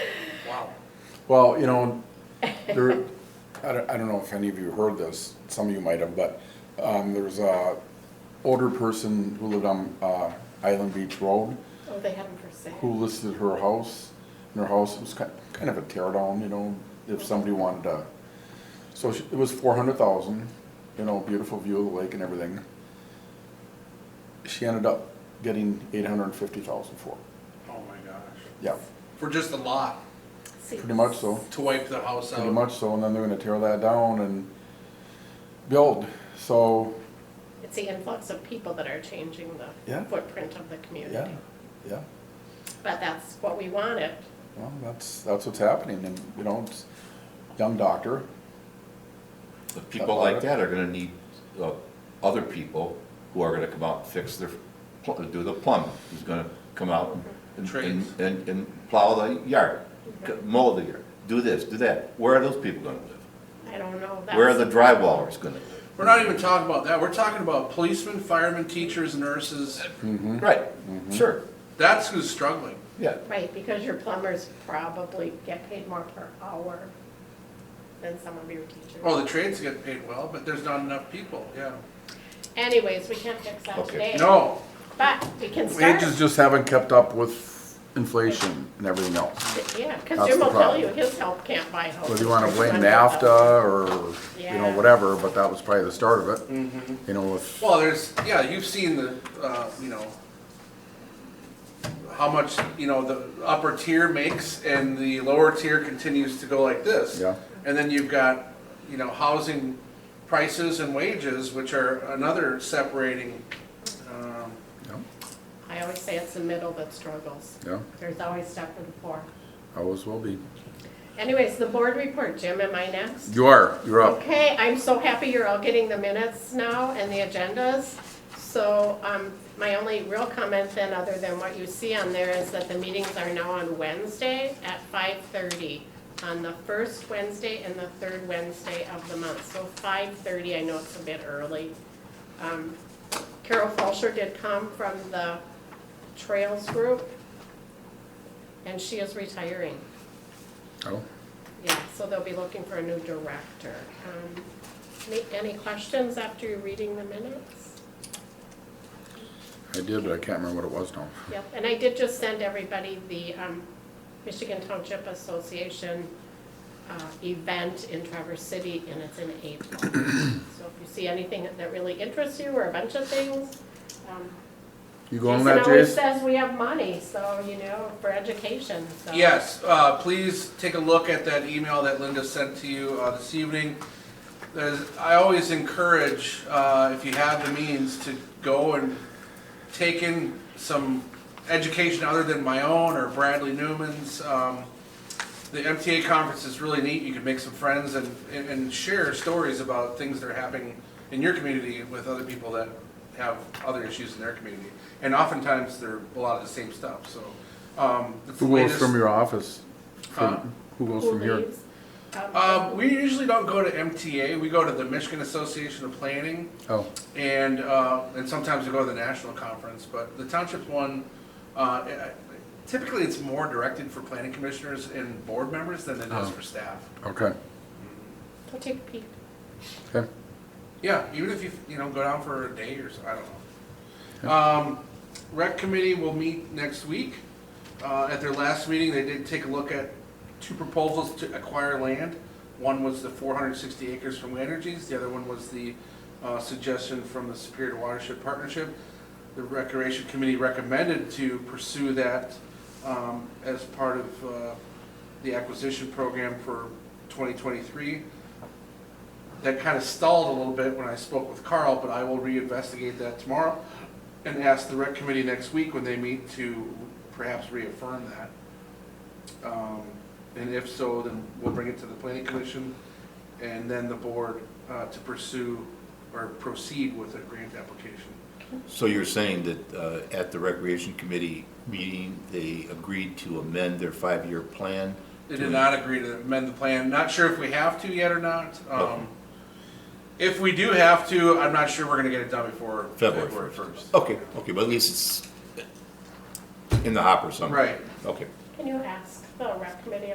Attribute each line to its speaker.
Speaker 1: Well, you know, there, I don't, I don't know if any of you heard this, some of you might have, but, um, there was a older person who lived on, uh, Island Beach Road
Speaker 2: Oh, they have them for sale.
Speaker 1: who listed her house, and her house was kind, kind of a tear down, you know, if somebody wanted to. So she- it was four hundred thousand, you know, beautiful view of the lake and everything. She ended up getting eight hundred and fifty thousand for it,
Speaker 3: Oh my gosh.
Speaker 1: yeah,
Speaker 3: For just a lot,
Speaker 2: See,
Speaker 1: pretty much so.
Speaker 3: to wipe the house out.
Speaker 1: Pretty much so, and then they're gonna tear that down and build, so,
Speaker 2: It's the influx of people that are changing
Speaker 1: Yeah.
Speaker 2: the footprint of the
Speaker 1: yeah,
Speaker 2: community.
Speaker 1: yeah.
Speaker 2: But that's what we wanted.
Speaker 1: Well, that's, that's what's happening, and, you know, it's young doctor,
Speaker 4: But people like that are gonna need, uh, other people who are gonna come out and fix their, pl- do the plumbing, who's gonna come out and,
Speaker 3: Trades.
Speaker 4: and, and, and plow the yard, c- mow the yard, do this, do that. Where are those people gonna live?
Speaker 2: I don't know.
Speaker 4: Where are
Speaker 2: that's-
Speaker 4: the drywallers gonna live?
Speaker 3: We're not even talking about that. We're talking about policemen, firemen, teachers, nurses.
Speaker 4: Mm-hmm. Right, sure,
Speaker 3: That's who's struggling.
Speaker 4: yeah.
Speaker 2: Right, because your plumbers probably get paid more per hour than some of your teachers.
Speaker 1: Oh.
Speaker 3: Well, Oh, the trades get paid well, but there's not enough people, yeah.
Speaker 2: Anyways, we can't fix that
Speaker 4: Okay.
Speaker 2: today.
Speaker 3: No,
Speaker 2: But we can start.
Speaker 1: Wages just haven't kept up with inflation and everything else.
Speaker 2: Yeah, because
Speaker 1: That's
Speaker 2: Jim
Speaker 1: the
Speaker 2: will tell
Speaker 1: problem.
Speaker 2: you, his help can't buy houses.
Speaker 1: Whether you wanna
Speaker 2: for
Speaker 1: blame
Speaker 2: $200,000.
Speaker 1: NAFTA or, you know,
Speaker 2: Yeah. Mm-hmm.
Speaker 1: whatever, but that was probably the start of it. You know, with,
Speaker 3: well, there's, yeah, you've seen the, uh, you know, how much, you know, the upper tier makes and the lower tier continues to go like this.
Speaker 1: Yeah.
Speaker 3: And then you've got, you know, housing prices and wages, which are another separating, um,
Speaker 1: yeah,
Speaker 2: I always say it's the middle that struggles.
Speaker 1: yeah,
Speaker 2: There's always step and four.
Speaker 1: always will be.
Speaker 2: Anyways, the board report, Jim, am I next?
Speaker 1: You are, you're up.
Speaker 2: Okay, I'm so happy you're all getting the minutes now and the agendas. So um, my only real comment then, other than what you see on there, is that the meetings are now on Wednesday at 5:30, on the first Wednesday and the third Wednesday of the month. So 5:30, I know it's a bit early. Um, Carol Falsher did come from the Trails Group, and she is retiring.
Speaker 1: Oh,
Speaker 2: Yeah, so they'll be looking for a new director. Um, Any, any questions after you're reading the minutes?
Speaker 1: I did, but I can't remember what it was now.
Speaker 2: Yep, and I did just send everybody the um, Michigan Township Association uh, event in Traverse City, and it's in April. So if you see anything that really interests you, or a bunch of things, um,
Speaker 1: You going on
Speaker 2: Jason
Speaker 1: that,
Speaker 2: always
Speaker 1: Jason?
Speaker 2: says we have money, so, you know, for education, so.
Speaker 3: Yes, uh, please take a look at that email that Linda sent to you uh, this evening. There's, I always encourage, uh, if you have the means, to go and take in some education other than my own or Bradley Newman's. Um, The MTA conference is really neat, you can make some friends and, and and share stories about things that are happening in your community with other people that have other issues in their community. And oftentimes, they're a lot of the same stuff, so. um, the
Speaker 1: Who goes
Speaker 3: latest-
Speaker 1: from your office?
Speaker 3: Huh?
Speaker 1: From- Who goes
Speaker 2: Uh, Who
Speaker 1: from here? Uh,
Speaker 2: leaves? Um,
Speaker 3: Um, we usually don't go to MTA. We go to the Michigan Association of Planning,
Speaker 1: Oh,
Speaker 3: and uh, and sometimes we go to the national conference. But the township one, uh, typically it's more directed for planning commissioners and board members than it is
Speaker 1: Oh.
Speaker 3: for staff.
Speaker 1: okay,
Speaker 2: Go take a peek.
Speaker 1: okay.
Speaker 3: Yeah, even if you you know go down for a day or so, I don't know. Um, rec committee will meet next week. Uh, at their last meeting, they did take a look at two proposals to acquire land. One was the 460 acres from Energies. The other one was the uh, suggestion from the Superior Watershed Partnership. The Recreation Committee recommended to pursue that um, as part of uh, the acquisition program for 2023 that kind of stalled a little bit when I spoke with Carl, but I will reinvestigate that tomorrow and ask the rec committee next week when they meet to perhaps reaffirm that. Um, And if so, then we'll bring it to the planning commission and then the board uh, to pursue or proceed with a grant application.
Speaker 4: So you're saying that, uh, at the recreation committee meeting, they agreed to amend their five-year plan?
Speaker 3: They did not agree to amend the plan. Not sure if we have to yet or not. Um, If we do have to, I'm not sure we're gonna get it done before
Speaker 4: February
Speaker 3: February first.
Speaker 4: Okay, okay, but at least it's in the hopper somewhere.
Speaker 3: Right.
Speaker 4: Okay.
Speaker 2: Can you ask the rec committee